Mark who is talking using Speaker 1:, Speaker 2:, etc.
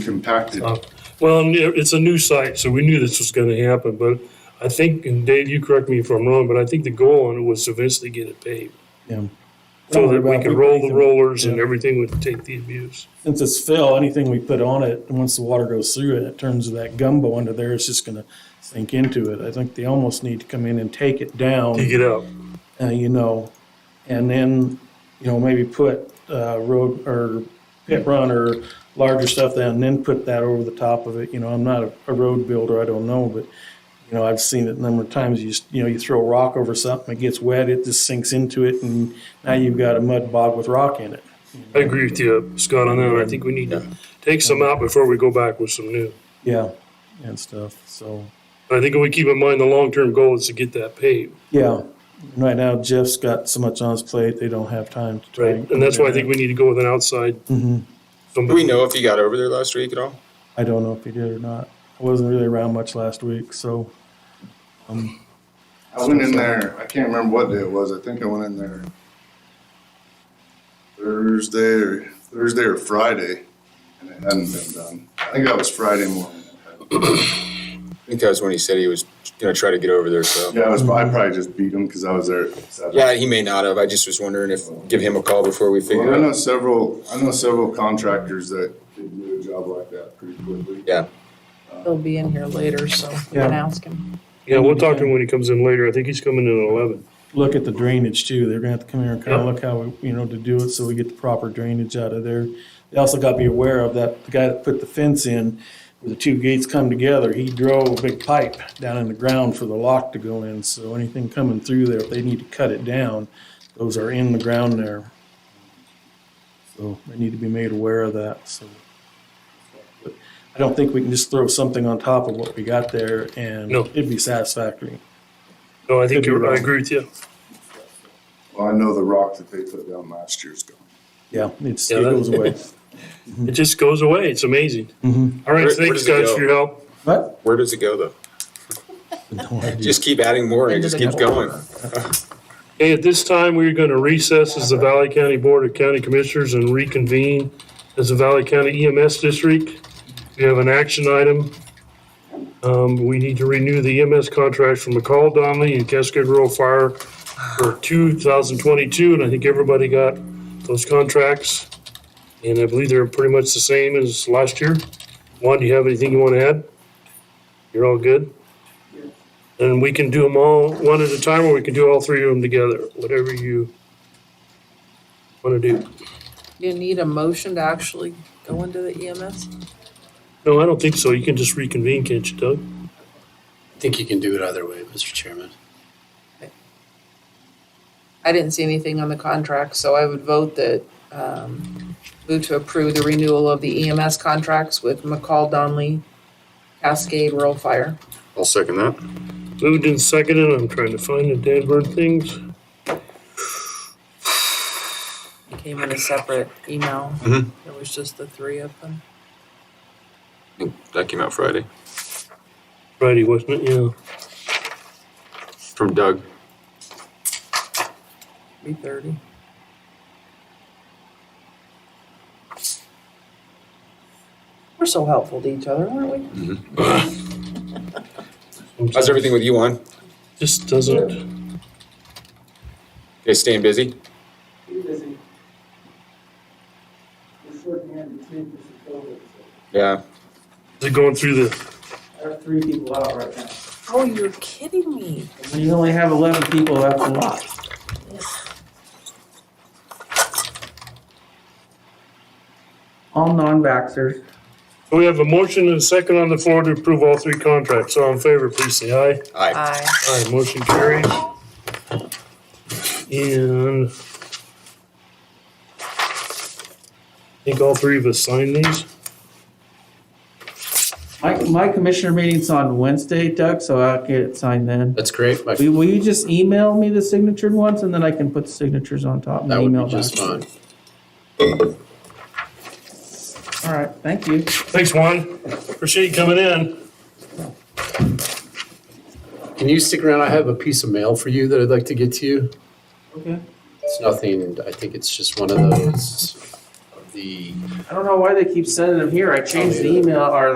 Speaker 1: compacted.
Speaker 2: Uh, Well, and it- it's a new site, so we knew this was going to happen, but I think, and Dave, you correct me if I'm wrong, but I think the goal on it was eventually get it paved.
Speaker 3: Yeah.
Speaker 2: So that we
Speaker 3: About
Speaker 2: could roll the
Speaker 3: everything.
Speaker 2: rollers and
Speaker 3: Yeah.
Speaker 2: everything would take the abuse.
Speaker 3: Since it's fill, anything we put on it, once the water goes through it, it turns to that gumbo under there, it's just gonna sink into it. I think they almost need to come in and take it
Speaker 2: Dig
Speaker 3: down,
Speaker 2: it out.
Speaker 3: uh, you know, and then, you know, maybe put, uh, road or pit run or larger stuff down, and then put that over the top of it. You know, I'm not a, a road builder, I don't know, but, you know, I've seen it a number of times. You just, you know, you throw a rock over something, it gets wet, it just sinks into it, and now you've got a mud bog with rock in it.
Speaker 2: I agree with you, Scott, on that. and I think we need to take some out before we go back with some new.
Speaker 3: Yeah, and stuff, so.
Speaker 2: But I think if we keep in mind the long-term goal is to get that paved,
Speaker 3: Yeah, right now Jeff's got so much on his plate, they don't have time to try.
Speaker 2: right? And that's why I think we need to go with an outside.
Speaker 3: Mhm.
Speaker 4: Do we
Speaker 2: somebody.
Speaker 4: know if he got over there last week at all?
Speaker 3: I don't know if he did or not. I wasn't really around much last week, so.
Speaker 1: I went in there, I can't remember what day it was, I think I went in there Thursday or Thursday or Friday, and it hadn't been done. I think that was Friday morning.
Speaker 4: I think that was when he said he was going to try to get over there. So
Speaker 1: Yeah, I was, I probably just beat him because I was there. at seven.
Speaker 4: yeah, he may not have. I just was wondering if give him a call before we figure
Speaker 1: Well, I
Speaker 4: it
Speaker 1: know
Speaker 4: out.
Speaker 1: several, I know several contractors that could do a job like that pretty quickly.
Speaker 4: Yeah.
Speaker 5: He'll be in here later, so we
Speaker 3: Yeah.
Speaker 5: can ask him.
Speaker 2: Yeah, we'll talk to him when he comes in later. I think he's coming in at eleven.
Speaker 3: Look at the drainage too. They're gonna have to come here and kind
Speaker 2: Yeah.
Speaker 3: of look how, we you know, to do it so we get the proper drainage out of there. They also got to be aware of that, the guy that put the fence in, where the two gates come together, he drove a big pipe down in the ground for the lock to go in. So anything coming through there, if they need to cut it down, those are in the ground there. So they need to be made aware of that, so. but I don't think we can just throw something on top of what we got there and
Speaker 2: No.
Speaker 3: it'd be satisfactory.
Speaker 2: No, I think
Speaker 3: Could be
Speaker 2: you're, I
Speaker 3: wrong.
Speaker 2: agree with you.
Speaker 1: Well, I know the rock that they put down last year's gone.
Speaker 3: Yeah, it's,
Speaker 2: Yeah,
Speaker 3: it
Speaker 2: that-
Speaker 3: goes away.
Speaker 2: It just goes away. It's amazing.
Speaker 3: Mhm.
Speaker 2: All right,
Speaker 4: Where- where
Speaker 2: thanks
Speaker 4: does it
Speaker 2: guys
Speaker 4: go?
Speaker 2: for your help.
Speaker 3: What?
Speaker 4: Where does it go though? Just keep adding more and it just keeps going.
Speaker 2: Hey, at this time, we're going to recess as the Valley County Board of County Commissioners and reconvene as the Valley County EMS District. We have an action item. Um, we need to renew the EMS contract from McCall Donnelly and Cascade Rural Fire for 2022, and I think everybody got those contracts. And I believe they're pretty much the same as last year. Juan, do you have anything you want to add? You're all good? And we can do them all one at a time, or we can do all three of them together, whatever you want to do.
Speaker 5: You need a motion to actually go into the EMS?
Speaker 2: No, I don't think so. You can just reconvene, can't you, Doug?
Speaker 6: I think you can do it either way, Mr. Chairman.
Speaker 5: I didn't see anything on the contract, so I would vote that, um, move to approve the renewal of the EMS contracts with McCall Donley, Cascade, Rural Fire.
Speaker 4: I'll second that.
Speaker 2: Moved and seconded. I'm trying to find the Dan Bird things.
Speaker 5: It came in a separate email.
Speaker 4: Mhm.
Speaker 5: It was just the three of them.
Speaker 4: That came out Friday
Speaker 2: Friday, wasn't it? Yeah.
Speaker 4: from Doug.
Speaker 5: Three thirty. We're so helpful to each other, aren't we?
Speaker 4: How's everything with you on?
Speaker 2: Just doesn't.
Speaker 4: Okay, staying busy.
Speaker 7: We're shorthanded too because of COVID, so
Speaker 4: Yeah.
Speaker 2: Is it going through the,
Speaker 7: I have three people out right now.
Speaker 5: Oh, you're kidding me.
Speaker 7: And when you only have eleven people, that's a lot. All non-vaxxers.
Speaker 2: we have a motion and a second on the floor to approve all three contracts. All in favor, please say aye.
Speaker 4: All right.
Speaker 5: I
Speaker 2: Aye, motion carries. And I think all three of us signed these.
Speaker 7: My, my commissioner meeting's on Wednesday, Doug, so I'll get it signed then.
Speaker 6: That's great. My-
Speaker 7: Will will you just email me the signatured ones and then I can put the signatures on top and
Speaker 6: That would
Speaker 7: email
Speaker 6: be
Speaker 7: back?
Speaker 6: just fine.
Speaker 7: All right, thank you.
Speaker 2: Thanks, Juan. Appreciate you coming in.
Speaker 6: Can you stick around? I have a piece of mail for you that I'd like to get to you.
Speaker 7: Okay.
Speaker 6: It's nothing, I think it's just one of those
Speaker 8: the
Speaker 3: I don't know why they keep sending them here. I changed the email or